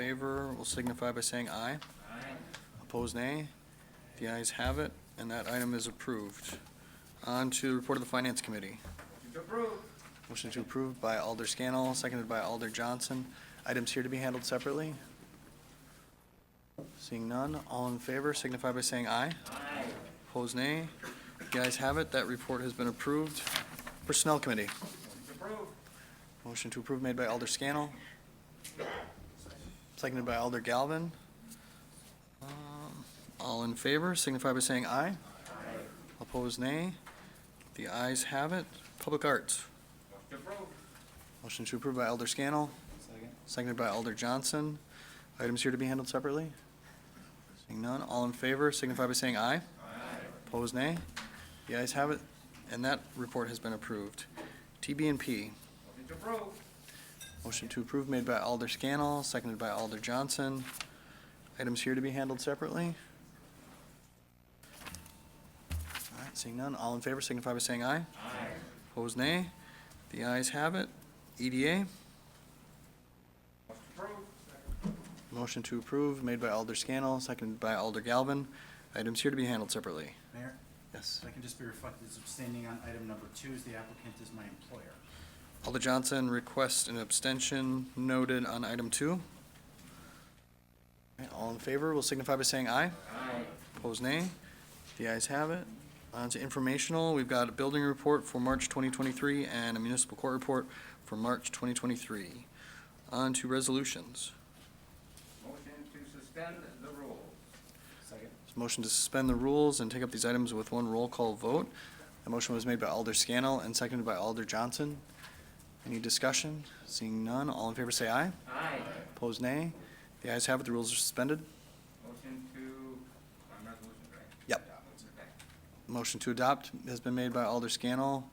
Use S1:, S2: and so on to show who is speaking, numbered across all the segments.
S1: favor will signify by saying aye. Aye. Opposed, nay. The ayes have it, and that item is approved. On to the report of the Finance Committee. Motion to approve by Alder Scannell, seconded by Alder Johnson. Items here to be handled separately? Seeing none, all in favor signify by saying aye. Aye. Opposed, nay. The ayes have it, that report has been approved. Personnel Committee. Motion to approve made by Alder Scannell. Seconded by Alder Galvin. Um, All in favor signify by saying aye. Aye. Opposed, nay. The ayes have it. Public Arts. Motion to approve by Elder Scannell. Seconded by Elder Johnson. Items here to be handled separately? Seeing none, all in favor signify by saying aye. Aye. Opposed, nay. The ayes have it, and that report has been approved. TB and P. Motion to approve made by Alder Scannell, seconded by Alder Johnson. Items here to be handled separately? All right, seeing none, all in favor signify by saying aye. Aye. Opposed, nay. The ayes have it. E EDA? Motion to approve made by Alder Scannell, seconded by Alder Galvin. Items here to be handled separately.
S2: Mayor,
S1: Yes.
S2: if I can just be reflected as abstaining on item number two, as the applicant is my employer.
S1: Alder Johnson requests an abstention noted on item two. All right, All in favor will signify by saying aye. Aye. Opposed, nay. The ayes have it. On to informational, we've got a building report for March 2023 and a municipal court report for March 2023. On to resolutions.
S3: Motion to suspend the rules.
S2: Second.
S1: Motion to suspend the rules and take up these items with one roll call vote. The motion was made by Alder Scannell and seconded by Alder Johnson. Any discussion? Seeing none, all in favor say aye.
S3: Aye.
S1: Opposed, nay. The ayes have it, the rules are suspended.
S3: Motion to, on resolution, right?
S1: Yep. Motion to adopt has been made by Alder Scannell,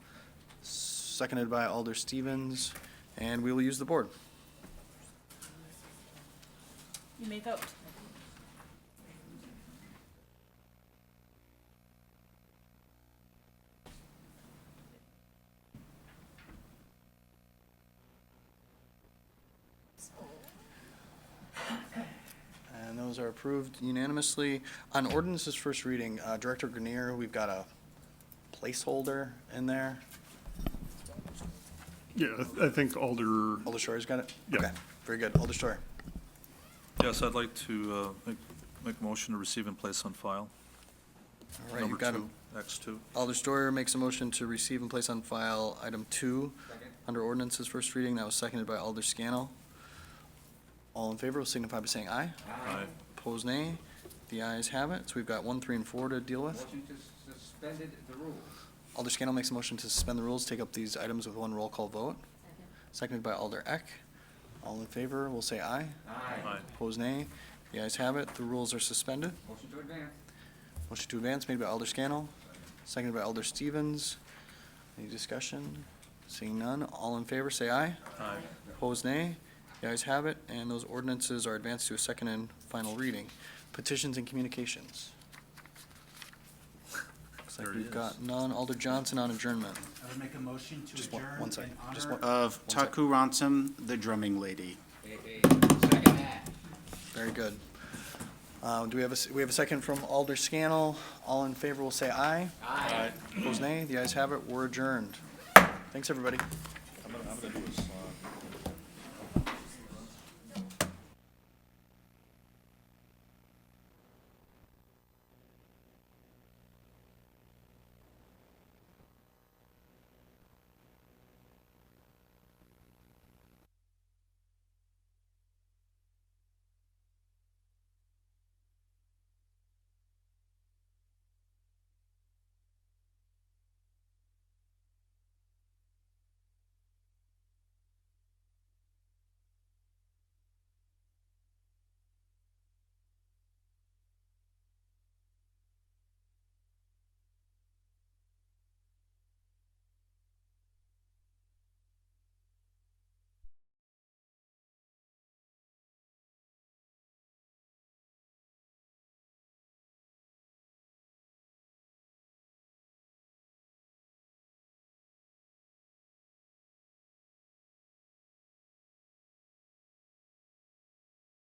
S1: seconded by Alder Stevens, and we will use the board.
S4: You may vote.
S1: And those are approved unanimously. On ordinance's first reading, uh, Director Grenier, we've got a placeholder in there.
S5: Yeah, I th- I think Alder,
S1: Alder Shore's got it?
S5: Yeah.
S1: Okay, Very good. Alder Shore.
S6: Yes, I'd like to uh, make- make a motion to receive and place on file.
S1: All right, you've got him.
S6: Number two, X2.
S1: Alder Storer makes a motion to receive and place on file item two
S3: Second.
S1: under ordinance's first reading. That was seconded by Alder Scannell. All in favor will signify by saying aye.
S6: Aye.
S1: Opposed, nay. The ayes have it. So we've got one, three, and four to deal with.
S3: Motion to suspended the rules.
S1: Alder Scannell makes a motion to suspend the rules, take up these items with one roll call vote. Seconded by Alder Eck. All in favor will say aye.
S6: Aye.
S1: Opposed, nay. The ayes have it. The rules are suspended.
S3: Motion to advance.
S1: Motion to advance made by Alder Scannell, seconded by Alder Stevens. Any discussion? Seeing none, all in favor, say aye.
S6: Aye.
S1: Opposed, nay. The ayes have it, and those ordinances are advanced to a second and final reading. Petitions and communications. Looks like
S6: There it
S1: we've
S6: is.
S1: got none. Alder Johnson on adjournment.
S2: I would make a motion to
S1: Just
S2: adjourn
S1: one-
S2: in honor.
S1: one second, just one-
S2: Of
S1: one second.
S2: Taku Ransom, the drumming lady.
S3: Hey, hey, second that.
S1: Very good. Uh, Do we have a, s- we have a second from Alder Scannell. All in favor will say aye. Aye. Opposed, nay. The ayes have it. We're adjourned. Thanks, everybody.
S6: I'm gonna do a